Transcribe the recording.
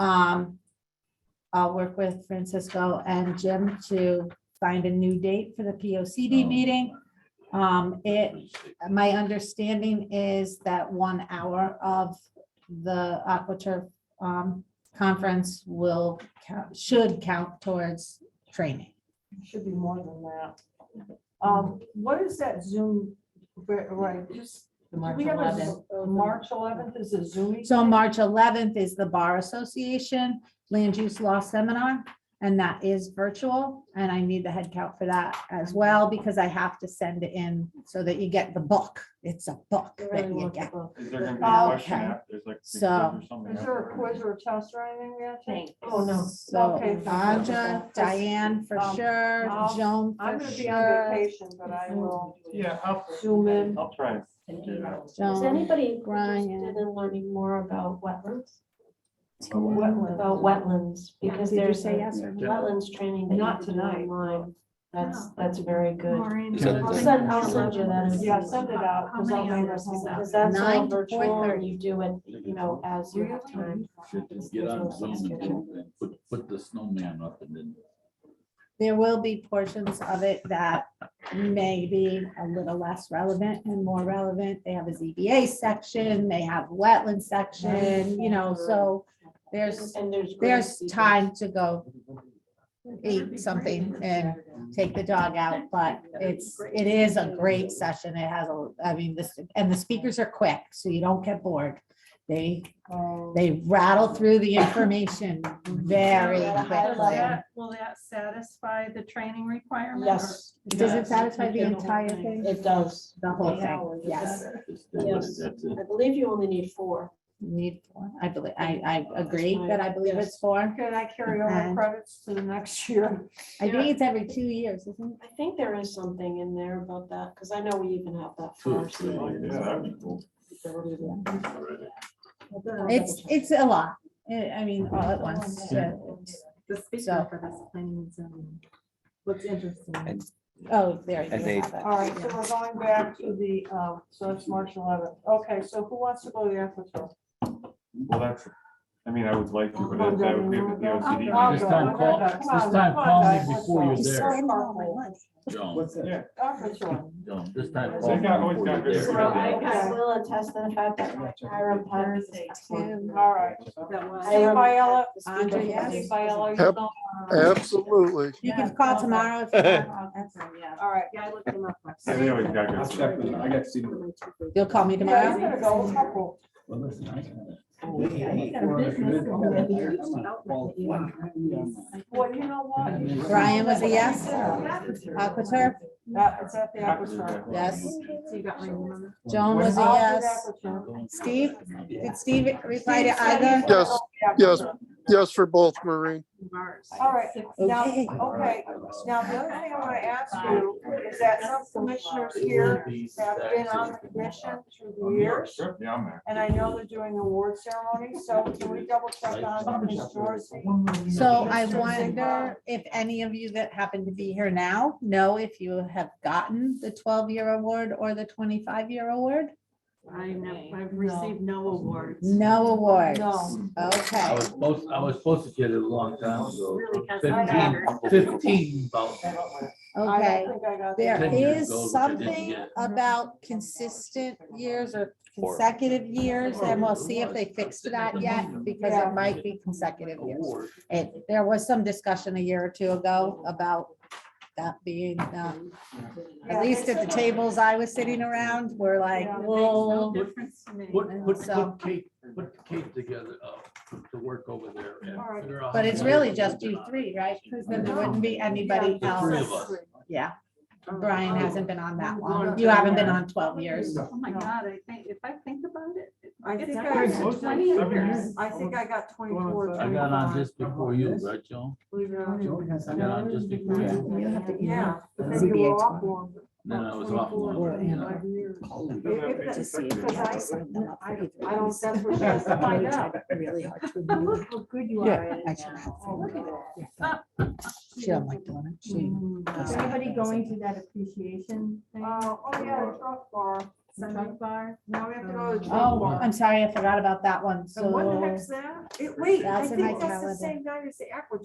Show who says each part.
Speaker 1: Um, I'll work with Francisco and Jim to find a new date for the P O C D meeting. Um, it, my understanding is that one hour of the AquaTurf um, conference will, count- should count towards training.
Speaker 2: Should be more than that. Um, what is that Zoom, right, right, just,
Speaker 3: The
Speaker 2: do
Speaker 3: March
Speaker 2: we have a, Z-
Speaker 3: 11th.
Speaker 2: March eleventh is a Zoom.
Speaker 1: So March eleventh is the Bar Association Land Use Law Seminar, and that is virtual. And I need the head count for that as well, because I have to send it in so that you get the book. It's a book that you get.
Speaker 4: Is there gonna be a question
Speaker 1: Okay.
Speaker 4: after? There's like. a quiz
Speaker 1: So-
Speaker 4: or something
Speaker 2: Is there a
Speaker 4: after?
Speaker 2: quiz or a test or anything yet?
Speaker 3: Thanks.
Speaker 2: Oh, no.
Speaker 1: So
Speaker 2: Okay.
Speaker 1: Anja, Diane for
Speaker 2: Um,
Speaker 1: sure,
Speaker 2: I'll-
Speaker 1: Joan
Speaker 2: I'm
Speaker 1: for
Speaker 2: gonna be on
Speaker 1: sure.
Speaker 2: vacation, but I will
Speaker 4: Yeah, I'll,
Speaker 2: zoom in.
Speaker 4: I'll try.
Speaker 3: An
Speaker 4: Yeah.
Speaker 3: email.
Speaker 5: Is
Speaker 1: Joan,
Speaker 5: anybody interested
Speaker 1: Brian.
Speaker 5: in learning more about wetlands,
Speaker 2: Wetland.
Speaker 5: about wetlands? Because
Speaker 2: Did you
Speaker 5: there's
Speaker 2: say
Speaker 5: a
Speaker 2: yes
Speaker 4: or no?
Speaker 5: wetlands training that
Speaker 2: Not
Speaker 5: you can do
Speaker 2: tonight.
Speaker 5: online. That's, that's very good.
Speaker 6: Send
Speaker 5: I'll
Speaker 6: it
Speaker 5: send, I'll send you that.
Speaker 2: Yeah, send it out.
Speaker 7: How
Speaker 2: 'cause I'll
Speaker 7: many
Speaker 2: be
Speaker 7: hours is
Speaker 2: responsible.
Speaker 7: that?
Speaker 5: Because that's all
Speaker 1: Nine to
Speaker 5: virtual
Speaker 1: 4:30.
Speaker 5: and you do it, you know, as you have time.
Speaker 6: Get on Zoom and do- and put, put the snowman up and then.
Speaker 1: there will be portions of it that may be a little less relevant and more relevant. They have a ZBA section, they have wetland section, you know, so there's,
Speaker 5: And there's. great
Speaker 1: there's
Speaker 5: speakers.
Speaker 1: time to go eat something and take the dog out, but it's, it is a great session. It has, a, I mean, this, and the speakers are quick, so you don't get bored. They,
Speaker 2: Um,
Speaker 1: they rattle through the information very
Speaker 7: Does
Speaker 5: Yeah,
Speaker 7: that-
Speaker 1: quickly.
Speaker 7: Will that satisfy the training requirement?
Speaker 2: Yes.
Speaker 1: Does it
Speaker 2: yes.
Speaker 1: satisfy the
Speaker 2: You can-
Speaker 1: entire thing?
Speaker 5: It does.
Speaker 1: The whole
Speaker 2: Yeah.
Speaker 1: thing, yes.
Speaker 6: just do it.
Speaker 5: Yes.
Speaker 6: That's
Speaker 5: I believe you only need four.
Speaker 1: Need, for- I believe, I, I agree
Speaker 5: my-
Speaker 1: that I believe it's four.
Speaker 2: Can I carry over
Speaker 1: And-
Speaker 2: credits to the next year?
Speaker 1: I think it's every two years, isn't
Speaker 5: I think there is something in there about that, because I know we even have that
Speaker 6: Two
Speaker 5: for
Speaker 6: or
Speaker 5: our
Speaker 6: three.
Speaker 5: students.
Speaker 6: years, that'd be cool.
Speaker 5: ability to-
Speaker 1: it? It's, it's a lot. I I mean, all at once. so it's-
Speaker 7: The
Speaker 1: So-
Speaker 7: speaker for this planning and zoning. What's interesting.
Speaker 1: Oh, there you
Speaker 8: And they-
Speaker 1: have it.
Speaker 2: All right, so we're going back to the, uh, so it's March eleventh. Okay, so who wants to go to the Aquatour?
Speaker 4: Well, that's, I mean, I would like to, but that that would be with the
Speaker 2: I'll
Speaker 4: OCD.
Speaker 2: go.
Speaker 3: This time call-
Speaker 2: Come on,
Speaker 3: this
Speaker 2: come
Speaker 3: time
Speaker 2: on,
Speaker 3: call me
Speaker 2: guys, let's
Speaker 3: before
Speaker 2: go.
Speaker 3: you're there.
Speaker 2: Let's go.
Speaker 6: Joan,
Speaker 4: Yeah,
Speaker 2: Aquatour.
Speaker 6: Joan, this time.
Speaker 4: They got- always
Speaker 6: call
Speaker 4: got
Speaker 6: before you're
Speaker 4: good
Speaker 5: Well, I,
Speaker 6: there.
Speaker 5: I will attest to the fact that Hiram Potter is excellent.
Speaker 2: All right.
Speaker 7: That was-
Speaker 5: I am-
Speaker 2: Steve Biella,
Speaker 5: Andre,
Speaker 2: Steve
Speaker 5: yes.
Speaker 2: Biella, you
Speaker 8: Yep.
Speaker 2: go.
Speaker 8: Absolutely.
Speaker 1: You can call tomorrow. if you have-
Speaker 7: Yeah,
Speaker 2: All right.
Speaker 7: yeah, I looked him up.
Speaker 4: Yeah, they always got
Speaker 9: I'll
Speaker 4: good.
Speaker 9: check with, I got to see.
Speaker 1: You'll call me
Speaker 2: Yeah, I'm
Speaker 1: tomorrow?
Speaker 2: gonna go a couple.
Speaker 6: Well, listen, I kinda-
Speaker 1: Oh,
Speaker 7: "Oh,
Speaker 2: Well, you know what?
Speaker 1: Brian was a yes? Aquaturf,
Speaker 2: Uh, it's at the Aquatour.
Speaker 1: yes.
Speaker 7: So you got my number?
Speaker 1: Joan was a
Speaker 2: I'll do
Speaker 1: yes.
Speaker 2: Aquatour.
Speaker 1: Steve, did Steve reply to either?
Speaker 8: Yes, yes. Yes, for both, Maureen.
Speaker 7: Mars.
Speaker 2: All right, now,
Speaker 1: Okay.
Speaker 2: okay, now the other thing I want to ask you is that some commissioners here have been on the commission through the years.
Speaker 4: Sure, Yeah, I'm there.
Speaker 2: And I know they're doing award ceremony, so can we double check on Ms. Dorsey?
Speaker 1: So I wonder if any of you that happen to be here now know if you have gotten the twelve-year award or the twenty-five-year award?
Speaker 7: I never, I've received no awards.
Speaker 1: No awards.
Speaker 2: No.
Speaker 6: I
Speaker 1: Okay,
Speaker 6: was supposed, I was supposed to get it a long time ago.
Speaker 7: Really has
Speaker 2: I know.
Speaker 6: Fifteen, fifteen, about
Speaker 2: I
Speaker 1: okay.
Speaker 2: don't think I got
Speaker 1: There
Speaker 2: that.
Speaker 6: Ten
Speaker 1: is
Speaker 6: years ago, which I didn't
Speaker 1: something
Speaker 6: get.
Speaker 2: Mm-hmm.
Speaker 1: about consistent years or consecutive years, and we'll see if they fixed that yet, because
Speaker 2: Yeah.
Speaker 1: it might be consecutive years.
Speaker 6: award.
Speaker 1: It, there was some discussion a year or two ago about that being, um,
Speaker 2: Yeah,
Speaker 1: at least at the
Speaker 2: it's-
Speaker 1: tables I was sitting around, we're like,
Speaker 2: Yeah.
Speaker 1: whoa.
Speaker 7: Difference to me.
Speaker 6: Put, put,
Speaker 1: So-
Speaker 6: put Kate, put Kate together, uh, to work over there
Speaker 2: All right.
Speaker 6: and figure out.
Speaker 1: But
Speaker 6: how
Speaker 1: it's
Speaker 6: to-
Speaker 1: really just you three, right? Because then there wouldn't be anybody
Speaker 6: The three of
Speaker 1: else.
Speaker 6: us.
Speaker 1: Yeah,
Speaker 2: Uh-huh.
Speaker 1: Brian hasn't been on that long.
Speaker 7: Going
Speaker 1: You haven't
Speaker 7: to-
Speaker 1: been on twelve years.
Speaker 7: Oh, my God, I think, if I think about it.
Speaker 2: I think
Speaker 7: it's
Speaker 2: I-
Speaker 7: upwards of
Speaker 4: Close to
Speaker 7: 20
Speaker 4: seven
Speaker 7: years.
Speaker 4: years.
Speaker 2: I think I got twenty-four.
Speaker 6: I got
Speaker 2: 25.
Speaker 6: on just before you, right, Joan?
Speaker 2: Believe it or not.
Speaker 6: I got on just before you.
Speaker 2: Yeah. but
Speaker 8: That's
Speaker 2: then you
Speaker 8: the
Speaker 2: were off one.
Speaker 6: Then I was off.
Speaker 8: Or, you know.
Speaker 6: long.
Speaker 2: Five years.
Speaker 8: To see if
Speaker 2: Because I-
Speaker 8: I signed them up
Speaker 2: I
Speaker 8: for
Speaker 2: don't,
Speaker 8: either.
Speaker 2: I don't, that's what she has to find out.
Speaker 8: Really hard to believe.
Speaker 7: How good you
Speaker 8: Yeah,
Speaker 7: are at it
Speaker 8: actually,
Speaker 7: now.
Speaker 2: Oh,
Speaker 8: I
Speaker 7: Look
Speaker 8: think-
Speaker 7: at it.
Speaker 8: She don't like doing it. She.
Speaker 7: Is Everybody going to that appreciation
Speaker 2: Uh,
Speaker 7: thing.
Speaker 2: oh, yeah, truck bar.
Speaker 7: Sunday bar.
Speaker 2: Now we have to go to the drink
Speaker 1: Oh,
Speaker 2: bar.
Speaker 1: I'm sorry, I forgot about that one, so.
Speaker 2: And what the heck's that? It- Wait, I
Speaker 1: That's in my
Speaker 2: think that's the
Speaker 1: calendar.
Speaker 2: same night as the aqua